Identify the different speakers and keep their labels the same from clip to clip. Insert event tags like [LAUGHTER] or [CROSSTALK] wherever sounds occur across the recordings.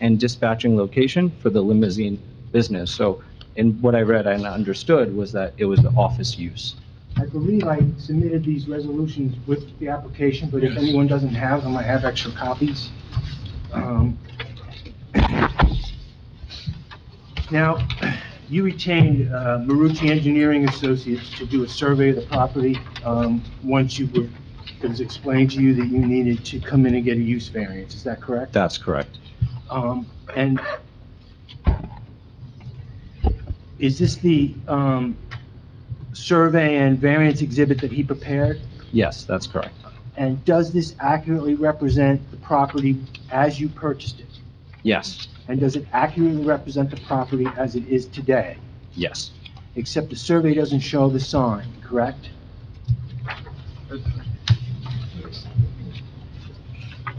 Speaker 1: and dispatching location for the limousine business. So, and what I read and understood was that it was the office use.
Speaker 2: I believe I submitted these resolutions with the application, but if
Speaker 3: Yes.
Speaker 2: anyone doesn't have them, I have extra copies. Um, Now, you retained uh, Marucci Engineering Associates to do a survey of the property, um, once you were, it was explained to you that you needed to come in and get a use variance, is that correct?
Speaker 1: That's correct.
Speaker 2: Um, and is this the, um, survey and variance exhibit that he prepared?
Speaker 1: Yes, that's correct.
Speaker 2: And does this accurately represent the property as you purchased it?
Speaker 1: Yes,
Speaker 2: And does it accurately represent the property as it is today?
Speaker 1: yes,
Speaker 2: Except the survey doesn't show the sign, correct?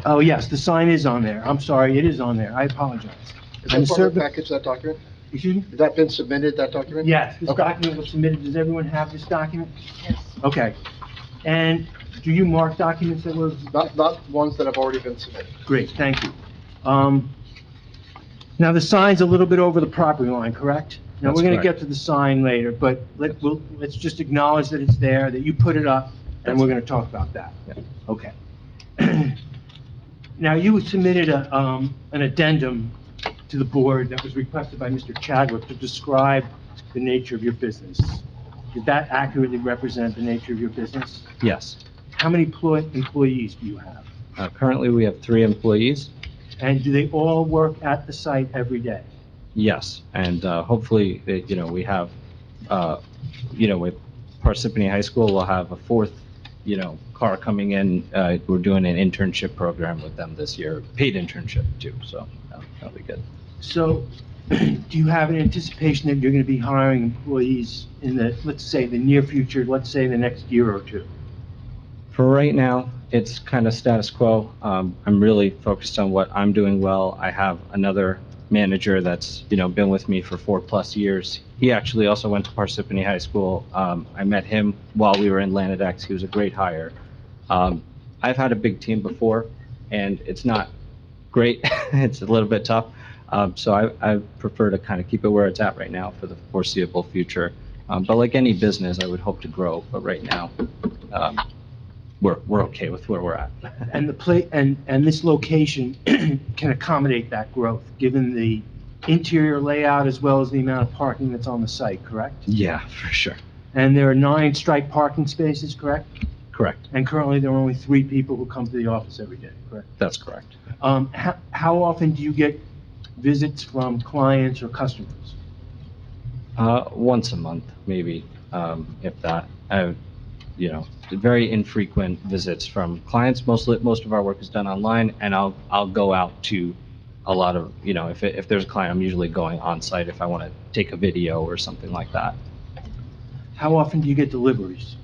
Speaker 2: Oh, yes, the sign is on there. I'm sorry, it is on there. I apologize.
Speaker 4: Is
Speaker 2: And
Speaker 4: that part of
Speaker 2: survey-
Speaker 4: the package, that document?
Speaker 2: Excuse me?
Speaker 4: Has that been submitted, that document?
Speaker 2: Yes, this
Speaker 4: Okay.
Speaker 2: document was submitted. Does everyone have this document?
Speaker 5: Yes.
Speaker 2: Okay. And do you mark documents that were,
Speaker 4: Not, not ones that have already been submitted.
Speaker 2: great, thank you. Um, Now, the sign's a little bit over the property line, correct? Now,
Speaker 1: That's
Speaker 2: we're going to
Speaker 1: correct.
Speaker 2: get to the sign later, but let, we'll, let's just acknowledge that it's there, that you put it up, and
Speaker 1: That's-
Speaker 2: we're going to talk about that.
Speaker 1: Yeah.
Speaker 2: Okay. Now, you submitted a, um, an addendum to the board that was requested by Mr. Chadwick to describe the nature of your business. Did that accurately represent the nature of your business?
Speaker 1: yes.
Speaker 2: How many ploy- employees do you have?
Speaker 1: Uh, Currently, we have three employees.
Speaker 2: And do they all work at the site every day?
Speaker 1: Yes, and uh, hopefully, uh, you know, we have, uh, you know, with Parsippany High School, we'll have a fourth, you know, car coming in. Uh, We're doing an internship program with them this year, paid internship too, so uh, that'll be good.
Speaker 2: So [CLEARS THROAT] do you have an anticipation that you're going to be hiring employees in the, let's say, the near future, let's say the next year or two?
Speaker 1: For right now, it's kind of status quo. Um, I'm really focused on what I'm doing well. I have another manager that's, you know, been with me for four-plus years. He actually also went to Parsippany High School. Um, I met him while we were in Lanedex. He was a great hire. Um, I've had a big team before, and it's not great. [LAUGHS] It's a little bit tough. Um, So I I prefer to kind of keep it where it's at right now for the foreseeable future. Um, But like any business, I would hope to grow, but right now, um, we're, we're okay with where we're at.
Speaker 2: And the pla, and, and this location [CLEARS THROAT] can accommodate that growth, given the interior layout as well as the amount of parking that's on the site, correct?
Speaker 1: [LAUGHS] Yeah, for sure.
Speaker 2: And there are nine striped parking spaces, correct?
Speaker 1: Correct.
Speaker 2: And currently, there are only three people who come to the office every day, correct?
Speaker 1: That's correct.
Speaker 2: Um, how, how often do you get visits from clients or customers?
Speaker 1: Uh, once a month, maybe, um, if that. I, you know, very infrequent visits from clients. Mostly, most of our work is done online, and I'll, I'll go out to a lot of, you know, if, it- if there's a client, I'm usually going on site if I want to take a video or something like that.
Speaker 2: How often do you get deliveries?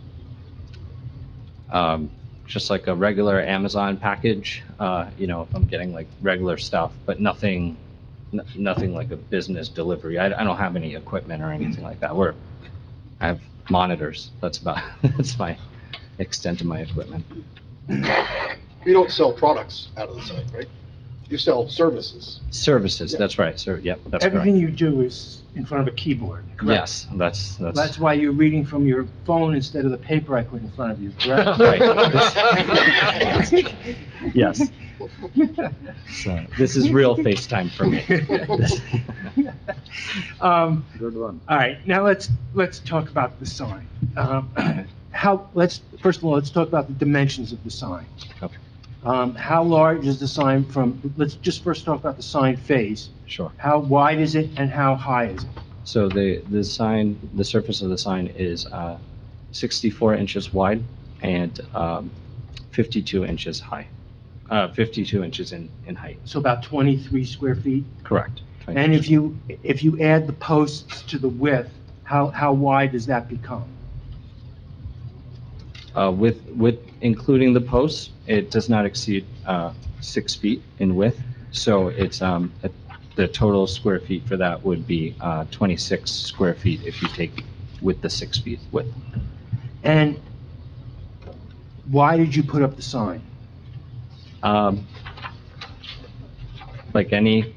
Speaker 1: Um, just like a regular Amazon package, uh, you know, if I'm getting like regular stuff, but nothing, n- nothing like a business delivery. I, I don't have any equipment or anything like that. We're, I have monitors. That's about, [LAUGHS] that's my extent of my equipment.
Speaker 4: You don't sell products out of the site, right? You sell services.
Speaker 1: Services, that's right, sir. Yep, that's
Speaker 2: Everything
Speaker 1: correct.
Speaker 2: you do is in front of a keyboard, correct?
Speaker 1: Yes, that's,
Speaker 2: That's
Speaker 1: that's,
Speaker 2: why you're reading from your phone instead of the paper I put in front of you,
Speaker 1: [LAUGHS]
Speaker 2: correct? [LAUGHS]
Speaker 4: Right.
Speaker 1: yes. So, This is
Speaker 2: [LAUGHS]
Speaker 1: real FaceTime for me.
Speaker 2: Um,
Speaker 3: Good one.
Speaker 2: All right, now let's, let's talk about the sign. Um, [CLEARS THROAT] How, let's, first of all, let's talk about the dimensions of the sign.
Speaker 1: Okay.
Speaker 2: Um, How large is the sign from, let's just first talk about the sign face.
Speaker 1: [LAUGHS] Sure.
Speaker 2: How wide is it and how high is it?
Speaker 1: So the, the sign, the surface of the sign is uh, 64 inches wide and um, 52 inches high, Uh, 52 inches in, in height.
Speaker 2: So about 23 square feet?
Speaker 1: Correct.
Speaker 2: And if you, if you add the posts to the width, how, how wide does that become?
Speaker 1: Uh, With, with, including the posts, it does not exceed uh, six feet in width. So it's, um, the total square feet for that would be uh, 26 square feet if you take with the six feet width.
Speaker 2: And why did you put up the sign?
Speaker 1: Um, Like any